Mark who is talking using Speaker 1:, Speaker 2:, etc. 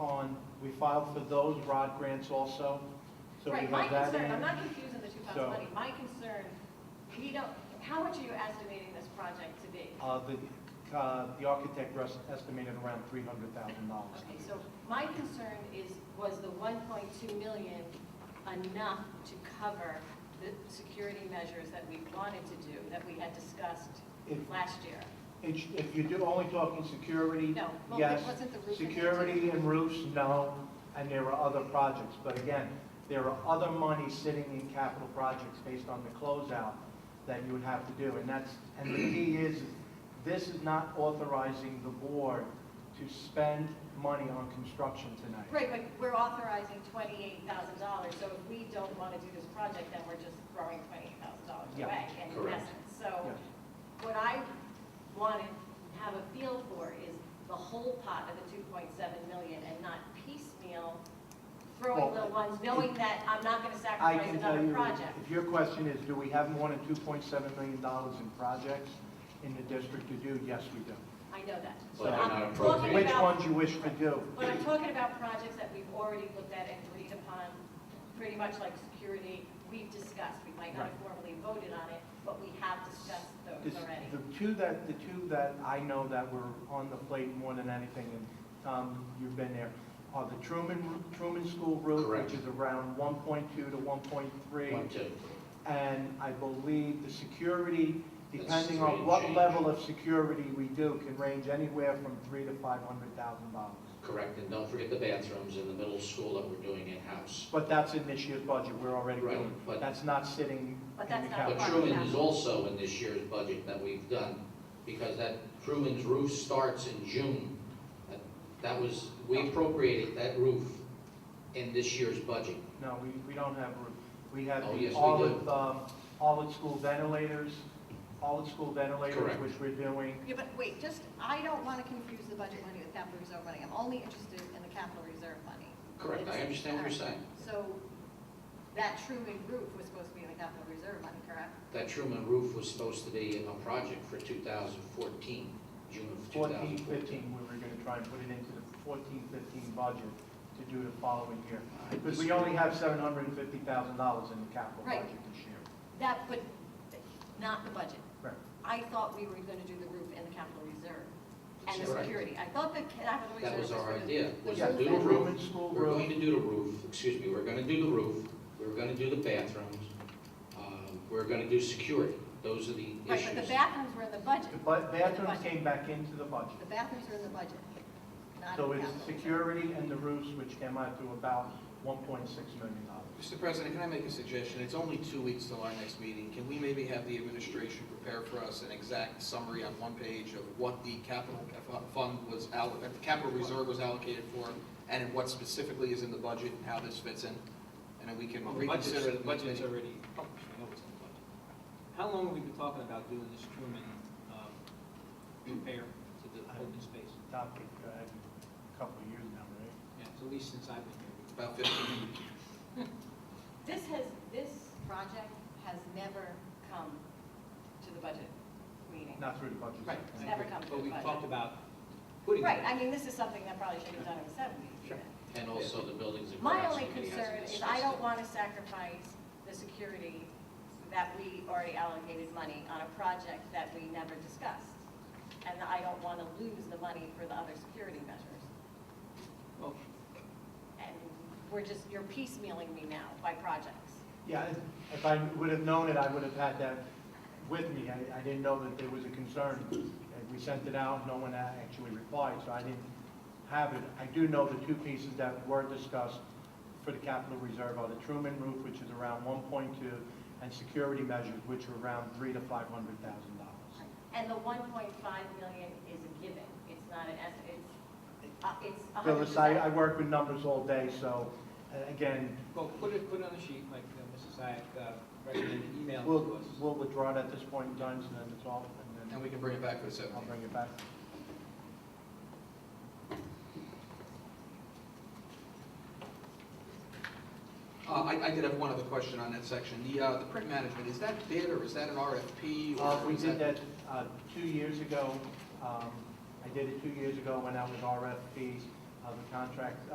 Speaker 1: We filed for those ROD grants also, so we
Speaker 2: Right,
Speaker 1: have
Speaker 2: my
Speaker 1: that in
Speaker 2: concern, I'm
Speaker 1: there.
Speaker 2: not confusing the two
Speaker 1: So-
Speaker 2: thousand money, my concern, we don't, how much are you estimating this project to be?
Speaker 1: Uh, The, uh, the architect res- estimated around $300,000.
Speaker 2: Okay, so my concern is, was the one point two million enough to cover the security measures that we wanted to do, that we had discussed
Speaker 1: If,
Speaker 2: last year?
Speaker 1: if if you're do- only talking security,
Speaker 2: No, well,
Speaker 1: Yes.
Speaker 2: it wasn't the roof.
Speaker 1: security and roofs, no, and there are other projects. But again, there are other monies sitting in capital projects based on the closeout that you would have to do. And that's, and the key is, this is not authorizing the board to spend money on construction tonight.
Speaker 2: Right, but we're authorizing twenty-eight thousand dollars, so if we don't want to do this project, then we're just throwing twenty-eight thousand dollars
Speaker 1: Yeah.
Speaker 2: away in
Speaker 3: Correct.
Speaker 2: essence. So what I want to have a feel for is the whole pot of the two point seven million and not piecemeal throwing
Speaker 1: Well,
Speaker 2: little ones, knowing that I'm not going to
Speaker 1: I
Speaker 2: sacrifice
Speaker 1: can tell
Speaker 2: another
Speaker 1: you,
Speaker 2: project.
Speaker 1: if your question is, do we have more than $2.7 million in projects in the district to do? Yes, we do.
Speaker 2: I know that.
Speaker 3: But they're
Speaker 2: I'm
Speaker 3: not
Speaker 2: talking
Speaker 3: appropriate.
Speaker 1: Which
Speaker 2: about-
Speaker 1: ones you wish to do?
Speaker 2: But I'm talking about projects that we've already looked at and agreed upon, pretty much like security, we've discussed, we might not have formally voted on it, but we have discussed those
Speaker 1: This-
Speaker 2: already.
Speaker 1: The two that, the two that I know that were on the plate more than anything, and Tom, you've been there, are the Truman, Truman School route,
Speaker 3: Correct.
Speaker 1: which is around 1.2 to 1.3,
Speaker 3: One, two.
Speaker 1: and I believe the security,
Speaker 3: That's
Speaker 1: depending
Speaker 3: three
Speaker 1: on
Speaker 3: and
Speaker 1: what
Speaker 3: change.
Speaker 1: level of security we do, can range anywhere from three to $500,000.
Speaker 3: Correct, and don't forget the bathrooms in the middle school that we're doing in-house.
Speaker 1: But that's in this year's budget, we're already
Speaker 3: Right,
Speaker 1: doing.
Speaker 3: but-
Speaker 1: That's not sitting
Speaker 2: But
Speaker 1: in the
Speaker 2: that's not
Speaker 1: capital.
Speaker 3: But Truman is also in this year's budget that we've done, because that Truman's roof starts in June. That- That was, we appropriated that roof in this year's budget.
Speaker 1: No, we, we don't have roof. We have
Speaker 3: Oh, yes,
Speaker 1: the
Speaker 3: we
Speaker 1: Olive, um, Olive School ventilators, Olive School ventilators,
Speaker 3: Correct.
Speaker 1: which we're doing.
Speaker 2: Yeah, but wait, just, I don't want to confuse the budget money with capital reserve money, I'm only interested in the capital reserve money.
Speaker 3: Correct, I understand what you're saying.
Speaker 2: So that Truman roof was supposed to be in the capital reserve money, correct?
Speaker 3: That Truman roof was supposed to be a project for 2014, June of
Speaker 1: Fourteen,
Speaker 3: 2014.
Speaker 1: fifteen, we were gonna try and put it into the fourteen, fifteen budget to do the following year.
Speaker 3: I
Speaker 1: Because we
Speaker 3: disagree.
Speaker 1: only have seven hundred and fifty thousand dollars in the capital
Speaker 2: Right.
Speaker 1: budget this year.
Speaker 2: That, but not the budget.
Speaker 1: Right.
Speaker 2: I thought we were going to do the roof and the capital reserve and the
Speaker 3: Correct.
Speaker 2: security. I thought the capital reserve
Speaker 3: That
Speaker 2: was
Speaker 3: was our
Speaker 2: for the-
Speaker 3: idea,
Speaker 2: the
Speaker 3: was
Speaker 2: roof
Speaker 3: to do the
Speaker 2: and-
Speaker 3: roof.
Speaker 1: Truman School
Speaker 3: We're going
Speaker 1: roof,
Speaker 3: to do the roof, excuse me, we're gonna do the roof, we're gonna do the bathrooms, uh, we're gonna do security. Those are the
Speaker 2: Right, but the
Speaker 3: issues.
Speaker 2: bathrooms were in the budget.
Speaker 1: the bu- bathrooms
Speaker 2: budget.
Speaker 1: came back into the budget.
Speaker 2: The bathrooms are in the budget, not in
Speaker 1: So
Speaker 2: the
Speaker 1: it's
Speaker 2: capital.
Speaker 1: security and the roofs, which came out to about one point six million dollars.
Speaker 4: Mr. President, can I make a suggestion? It's only two weeks till our next meeting. Can we maybe have the administration prepare for us an exact summary on one page of what the capital fu- fund was, allo- uh, the capital reserve was allocated for, and what specifically is in the budget and how this fits in? And then we can
Speaker 5: Well, the budget's,
Speaker 4: reconsider it.
Speaker 5: the budget's already published, I know it's in the budget. How long have we been talking about doing this Truman, um, repair to the open space?
Speaker 1: topic uh, a couple of years now, right?
Speaker 5: Yeah, it's at least since I've been here.
Speaker 4: About fifteen.
Speaker 2: This has, this project has never come to the budget meeting.
Speaker 1: Not through the budget.
Speaker 2: Right. It's never come to
Speaker 5: But
Speaker 2: the
Speaker 5: we've talked
Speaker 2: budget.
Speaker 5: about putting.
Speaker 2: Right,
Speaker 5: it.
Speaker 2: I mean, this is something that probably should have been done in the seventies.
Speaker 3: And also the buildings and
Speaker 2: My
Speaker 3: grounds
Speaker 2: only
Speaker 3: committee hasn't
Speaker 2: concern is
Speaker 3: discussed
Speaker 2: I
Speaker 3: it.
Speaker 2: don't want to sacrifice the security that we already allocated money on a project that we never discussed. And I don't want to lose the money for the other security measures.
Speaker 5: Well,
Speaker 2: And we're just, you're piecemealing me now by projects.
Speaker 1: Yeah, if- if I would have known it, I would have had that with me. I, I didn't know that there was a concern. And We sent it out, no one a- actually replied, so I didn't have it. I do know the two pieces that were discussed for the capital reserve are the Truman roof, which is around one point two, and security measures, which are around three to five hundred thousand dollars.
Speaker 2: And the 1.5 million is a given, it's not an estimate, it's, uh, it's a hundred
Speaker 1: Phyllis, I, I
Speaker 2: percent.
Speaker 1: work with numbers all day, so, uh, again,
Speaker 5: well, put it, put it on the sheet, like uh, Mrs. Syak, uh, recommended, email to
Speaker 1: We'll,
Speaker 5: us.
Speaker 1: we'll withdraw it at this point in time, and then it's all, and
Speaker 4: And
Speaker 1: then
Speaker 4: we can bring it back for the seventeen.
Speaker 1: I'll bring it back.
Speaker 4: Uh, I, I did have one other question on that section. The, uh, the print management, is that bid or is that an RFP? or
Speaker 1: Uh, We
Speaker 4: is
Speaker 1: did that uh, two years ago. Um, I did it two years ago when I was RFP, uh, the contract,